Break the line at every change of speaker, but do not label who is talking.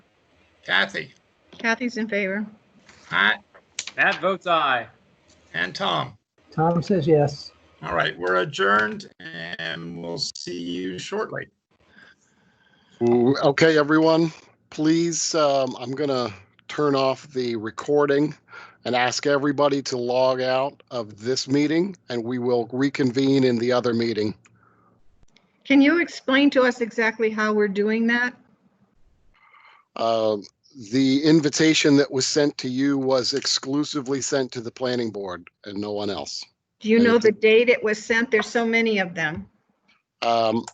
Kathy,
Kathy's in favor.
Matt,
Matt votes aye.
and Tom.
Tom says yes.
All right, we're adjourned and we'll see you shortly.
Ooh, Okay, everyone, please, um, I'm gonna turn off the recording and ask everybody to log out of this meeting and we will reconvene in the other meeting.
Can you explain to us exactly how we're doing that?
Um, The invitation that was sent to you was exclusively sent to the planning board and no one else.
Do you know the date it was sent? There's so many of them.
Um,